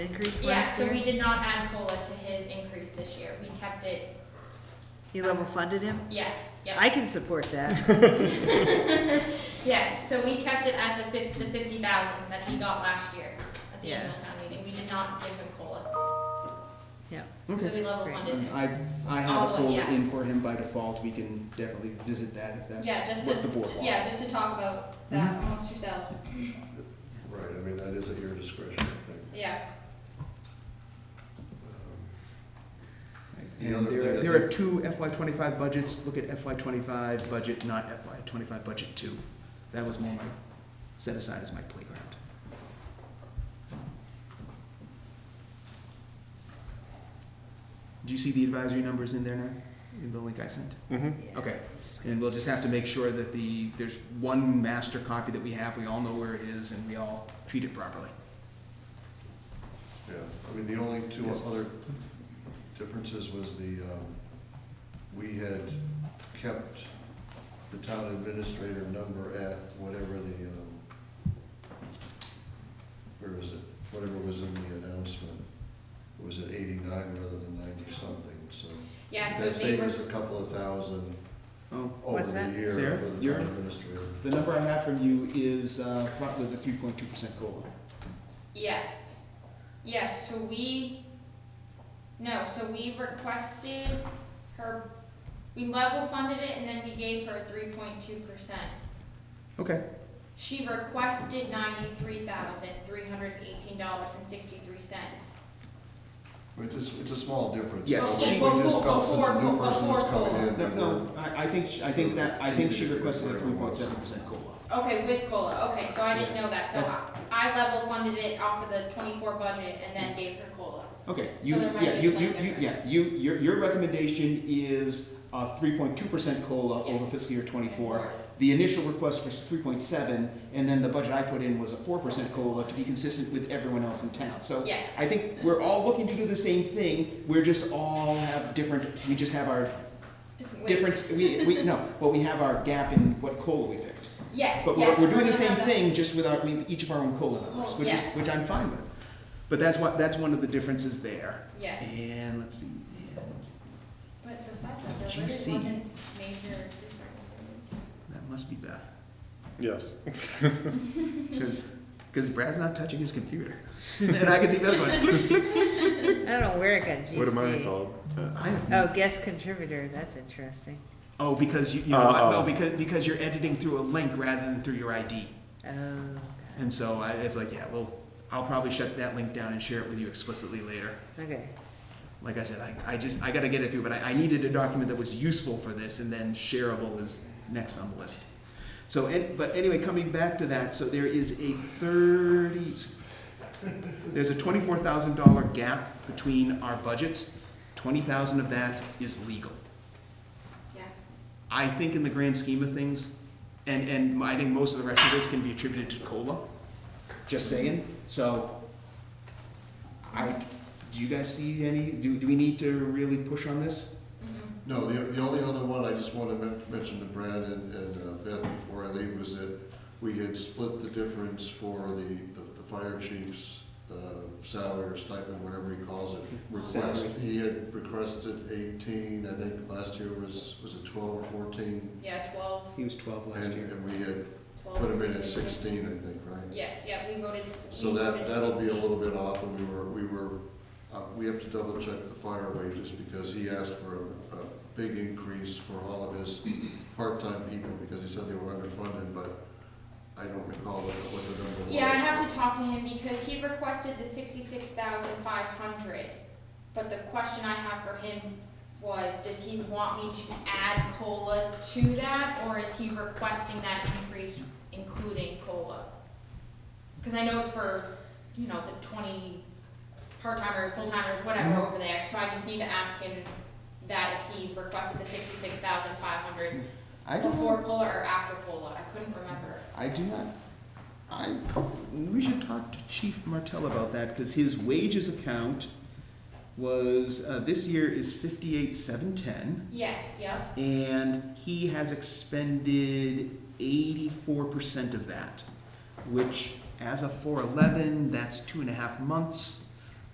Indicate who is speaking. Speaker 1: increase
Speaker 2: Yeah,
Speaker 1: last
Speaker 2: so we
Speaker 1: year?
Speaker 2: did not add COLA to his increase this year. We kept it,
Speaker 1: You level funded him?
Speaker 2: yes, yep.
Speaker 1: I can support that.
Speaker 2: Yes, so we kept it at the fif- the fifty thousand that he got last year at the
Speaker 1: Yeah.
Speaker 2: annual town meeting. We did not give him COLA,
Speaker 1: Yeah,
Speaker 2: so
Speaker 3: Okay.
Speaker 2: we level
Speaker 1: Great.
Speaker 2: funded
Speaker 3: And
Speaker 2: him.
Speaker 3: I, I have a
Speaker 2: All of-
Speaker 3: COLA
Speaker 2: yeah.
Speaker 3: in for him by default, we can definitely visit that if
Speaker 2: Yeah,
Speaker 3: that's
Speaker 2: just
Speaker 3: what the board
Speaker 2: to,
Speaker 3: wants.
Speaker 2: yeah, just to talk about that
Speaker 1: Mm-hmm.
Speaker 2: amongst yourselves,
Speaker 4: Right, I mean, that is at your discretion, I think.
Speaker 2: yeah.
Speaker 3: And there, are- there are two FY twenty-five budgets, look at FY twenty-five budget, not FY twenty-five budget two. That was more my, set aside as my playground. Do you see the advisory numbers in there now, in the link I sent? Okay, and we'll just have to make sure that the, there's one master copy that we have, we all know where it is, and we all treat it properly.
Speaker 4: Yeah, I mean, the only two
Speaker 3: Yes.
Speaker 4: other differences was the, um, we had kept the town administrator number at whatever the, um, where is it? Whatever was in the announcement, it was at eighty-nine rather than ninety-something, so.
Speaker 2: Yeah, so
Speaker 4: That
Speaker 2: they
Speaker 4: saved
Speaker 2: were,
Speaker 4: us a couple of thousand
Speaker 3: Oh,
Speaker 4: over
Speaker 1: What's
Speaker 4: the
Speaker 1: that?
Speaker 4: year for
Speaker 3: Sarah,
Speaker 4: the
Speaker 3: you're-
Speaker 4: town administrator.
Speaker 3: the number I have from you is, uh, probably the three point two percent COLA.
Speaker 2: yes, yes, so we, no, so we requested her, we level funded it and then we gave her three point two percent.
Speaker 3: Okay,
Speaker 2: She requested ninety-three thousand, three hundred eighteen dollars and sixty-three cents.
Speaker 4: It's a, s- it's a small difference.
Speaker 3: Yes,
Speaker 4: So
Speaker 3: she-
Speaker 4: We just felt since a
Speaker 2: Before-
Speaker 4: new person was
Speaker 2: before
Speaker 4: coming in.
Speaker 3: no,
Speaker 4: we were-
Speaker 3: no, I, I think, she- I think that, I think she requested a three point seven percent COLA.
Speaker 2: Okay, with COLA, okay, so I didn't know that, so
Speaker 3: That's-
Speaker 2: I- I level funded it off of the twenty-four budget and then gave her COLA.
Speaker 3: Okay,
Speaker 2: So
Speaker 3: you,
Speaker 2: there might
Speaker 3: yeah,
Speaker 2: be
Speaker 3: you,
Speaker 2: some
Speaker 3: you, you, yeah,
Speaker 2: difference.
Speaker 3: you, your, your recommendation is, uh, three point two percent COLA over
Speaker 2: Yes.
Speaker 3: fiscal year twenty-four. The initial request was three point seven, and then the budget I put in was a four percent COLA to be consistent with everyone else in town, so.
Speaker 2: Yes.
Speaker 3: I think we're all looking to do the same thing, we're just all have different, we just have our
Speaker 2: Different ways.
Speaker 3: difference, we, we, no, but we have our gap in what COLA we picked.
Speaker 2: Yes, yes.
Speaker 3: But we're, we're doing the
Speaker 2: gonna
Speaker 3: same
Speaker 2: have that.
Speaker 3: thing, just with our, with each of our own COLA numbers,
Speaker 2: Oh,
Speaker 3: which is,
Speaker 2: yes.
Speaker 3: which I'm fine with. But that's what, that's one of the differences there.
Speaker 2: Yes,
Speaker 3: And let's see, and
Speaker 2: but besides that, there really
Speaker 3: GC.
Speaker 2: wasn't major differences.
Speaker 3: that must be Beth,
Speaker 5: Yes.
Speaker 3: because, Brad's not touching his computer. And I can see Beth going, "Click."
Speaker 1: I don't know where it got GC.
Speaker 5: What am I called?
Speaker 3: I have-
Speaker 1: Oh, guest contributor, that's interesting.
Speaker 3: oh, because you, you know,
Speaker 5: Uh, uh.
Speaker 3: no, because, because you're editing through a link rather than through your ID.
Speaker 1: Oh,
Speaker 3: And so I, it's like, yeah, well, I'll probably shut that link down and share it with you explicitly later.
Speaker 1: okay.
Speaker 3: Like I said, I, I just, I gotta get it through, but I, I needed a document that was useful for this, and then shareable is next on the list. So, and, but anyway, coming back to that, so there is a thirty, there's a twenty-four thousand dollar gap between our budgets. Twenty thousand of that is legal.
Speaker 2: Yeah,
Speaker 3: I think in the grand scheme of things, and, and I think most of the rest of this can be attributed to COLA, just saying, so. I, do you guys see any, do, do we need to really push on this?
Speaker 2: mhm,
Speaker 4: No, the, the only other one I just wanted to men- mention to Brad and, and uh, Beth before I leave was that we had split the difference for the, the, the fire chief's, uh, salary or stipend, whatever he calls it. Request,
Speaker 3: Salary.
Speaker 4: he had requested eighteen, I think last year was, was it twelve or fourteen?
Speaker 2: yeah, twelve,
Speaker 3: He was twelve last
Speaker 4: And,
Speaker 3: year.
Speaker 4: and we had
Speaker 2: twelve.
Speaker 4: put him in at sixteen, I think, right?
Speaker 2: Yes, yeah, we voted.
Speaker 4: So
Speaker 2: we
Speaker 4: that,
Speaker 2: voted
Speaker 4: that'll be a
Speaker 2: 16.
Speaker 4: little bit off, and we were, we were, uh, we have to double check the fire wages, because he asked for a, a big increase for all of his
Speaker 2: Mm-hmm.
Speaker 4: part-time people, because he said they were underfunded, but I don't recall what, the- what the number was.
Speaker 2: Yeah, I have to talk to him because he requested the sixty-six thousand five hundred. But the question I have for him was, does he want me to add COLA to that, or is he requesting that increase including COLA? Cause I know it's for, you know, the twenty part-timers, full-timers, whatever
Speaker 3: Mhm.
Speaker 2: over there, so I just need to ask him that if he requested the sixty-six thousand five hundred
Speaker 3: I
Speaker 2: before
Speaker 3: don't,
Speaker 2: COLA or after COLA, I couldn't remember.
Speaker 3: I do not, I, we should talk to Chief Martell about that, cause his wages account was, uh, this year is fifty-eight, seven, ten.
Speaker 2: Yes, yep.
Speaker 3: and he has expended eighty-four percent of that, which, as of four eleven, that's two and a half months.